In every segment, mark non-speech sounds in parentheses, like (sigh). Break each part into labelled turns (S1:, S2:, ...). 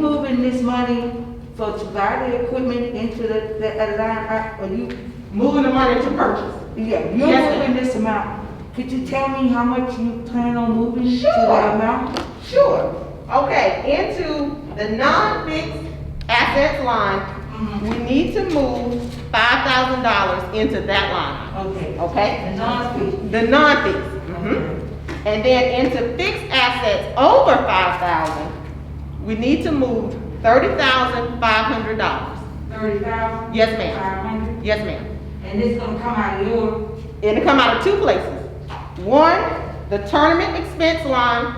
S1: putting this money for to buy the equipment into the, the a line, I- or you,
S2: Moving the money to purchase.
S1: yeah, you're
S2: Yes, ma'am.
S1: moving this amount. Could you tell me how much you plan on moving to
S2: Sure.
S1: the amount?
S2: Sure, okay, into the non-fixed assets line, we need to move five thousand dollars into that line,
S1: Okay.
S2: okay?
S1: And non-fee.
S2: The non-fixed. mhm. And then into fixed assets over five thousand, we need to move thirty thousand five hundred dollars.
S1: Thirty thousand?
S2: Yes, ma'am.
S1: Five hundred?
S2: Yes, ma'am.
S1: And this gonna come out of your,
S2: And it come out of two places. One, the tournament expense line,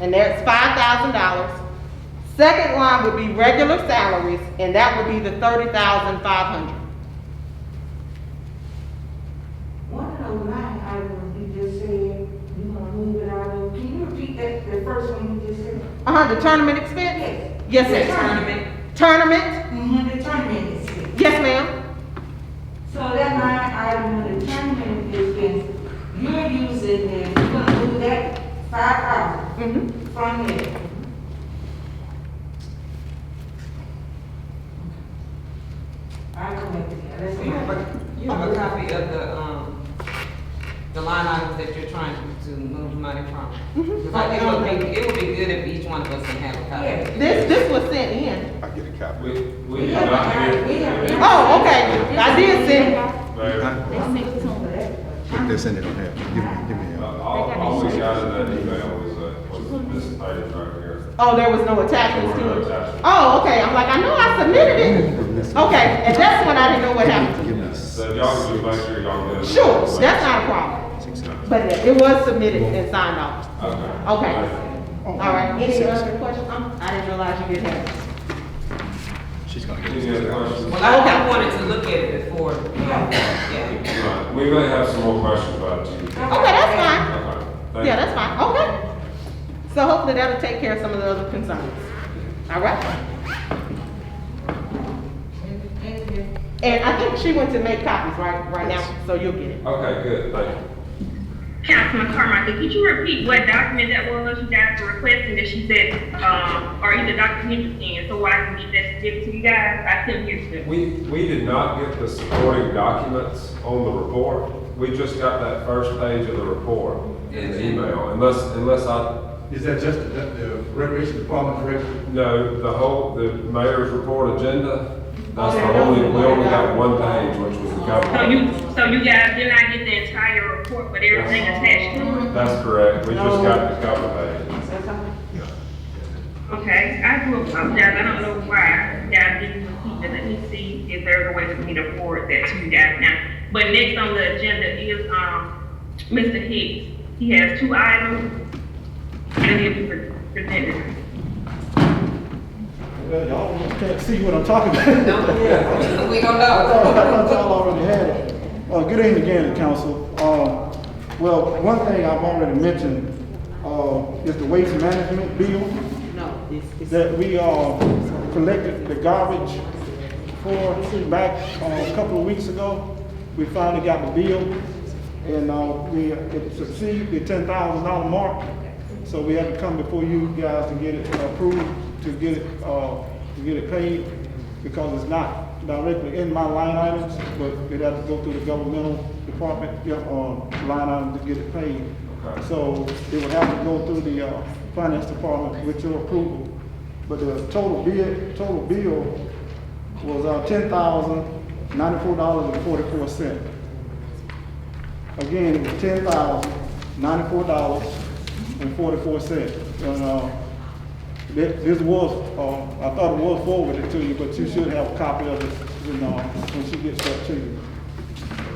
S2: and that's five thousand dollars. Second line would be regular salaries, and that would be the thirty thousand five hundred.
S1: one of those line items you just said, you gonna move it out of, can you repeat that, the first one you just said?
S2: Uh-huh, the tournament expense?
S1: Yes.
S2: Yes, ma'am. Tournament?
S1: Mm-hmm, the tournament is it.
S2: Yes, ma'am.
S1: So that line item on the tournament expense, you're using it, you're gonna move that five
S2: Mhm.
S1: thousand from there. I corrected that, that's
S3: You have
S1: my,
S3: a, you have a copy of the, um, the line items that you're trying to- to move money from. Because I think it would be, it would be good if each one of us can have a copy.
S2: This, this was sent in.
S4: I get a copy.
S5: We, we
S1: We
S5: have
S1: have
S5: not
S1: a- we have-
S5: been.
S2: Oh, okay, I did send it.
S5: Very-
S4: Put this in it on here. Give me, give me.
S5: Uh,
S4: uh,
S5: All, all we got in that email was, uh, was this item right here.
S2: Oh, there was no attachments
S5: There were
S2: to
S5: no
S2: it.
S5: attachments.
S2: Oh, okay, I'm like, I know I submitted it. Okay, and that's when I didn't know what happened
S4: Give me
S5: So if y'all can just make sure y'all get.
S2: to.
S5: it.
S2: Sure, that's not a problem,
S4: six.
S2: but it was submitted and signed off.
S5: Okay.
S2: Okay. All right, any other questions? Um, I didn't realize you didn't have.
S4: She's gonna get
S5: Any other
S4: it.
S5: questions?
S3: Well, I, I wanted to look at it before, yeah.
S5: Right. We may have some more questions about you. Okay,
S2: Okay, that's fine.
S5: thank
S2: Yeah,
S5: you.
S2: that's fine, okay. So hopefully that'll take care of some of the other concerns. All right? And I think she went to make copies right, right now, so you'll get it.
S5: Okay, good, thank you.
S6: Councilman Carmichael, could you repeat what document that was you guys were requesting that she said, um, or either Dr. Henderson, and so I can get that given to you guys? I couldn't hear you.
S5: We, we did not get the supporting documents on the report. We just got that first page of the report in the email, unless, unless I,
S7: Is that just the, the recreation department director?
S5: no, the whole, the mayor's report agenda, that's the only, we only got one page, which was the
S6: So
S5: government.
S6: you, so you guys did not get the entire report, but everything attached to it?
S5: That's correct, we just got the cover page.
S6: Okay, I do apologize, I don't know why you guys didn't receive it, let me see if there's a way for me to forward that to you guys now. But next on the agenda is, um, Mr. Hicks, he has two items, and he'll be pre- presented.
S8: Well, y'all can't see what I'm talking
S3: (laughs)
S8: about.
S3: We don't
S8: I thought, I thought y'all already had it. Uh, good evening again, council. Uh, well, one thing I've already mentioned, uh, is the waste management bill
S2: No, it's, it's.
S8: that we, uh, collected the garbage for back, uh, a couple of weeks ago. We finally got the bill and, uh, we, it exceeded the ten thousand dollar mark. So we had to come before you guys to get it approved, to get it, uh, to get it paid because it's not directly in my line items, but it had to go through the governmental department, yeah, uh, line item to get it paid.
S5: Okay.
S8: So it would have to go through the, uh, finance department with your approval. But the total bid, total bill was, uh, ten thousand ninety-four dollars and forty-four cent. Again, it was ten thousand ninety-four dollars and forty-four cent. And, uh, this, this was, uh, I thought it was forwarded to you, but you should have a copy of it, you know, when she gets that to you.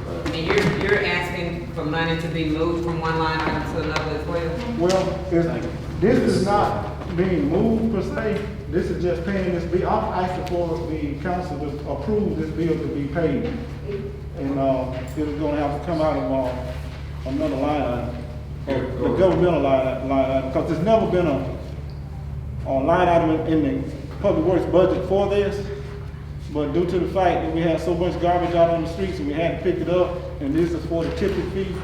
S3: I mean, you're, you're asking for money to be moved from one line item to another as well?
S8: Well, it's, this is not being moved per se, this is just paying this bill, I'm asking for the council to approve this bill to be paid. And, uh, it's gonna have to come out of, uh, another line item, or the governmental line, line item, because there's never been a, a line item in in the public works budget for this. But due to the fact that we had so much garbage out on the streets and we had to pick it up, and this is for the tipping fee.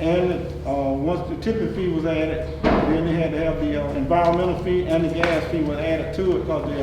S8: And, uh, once the tipping fee was added, then they had to have the uh, environmental fee and the gas fee were added to it because they're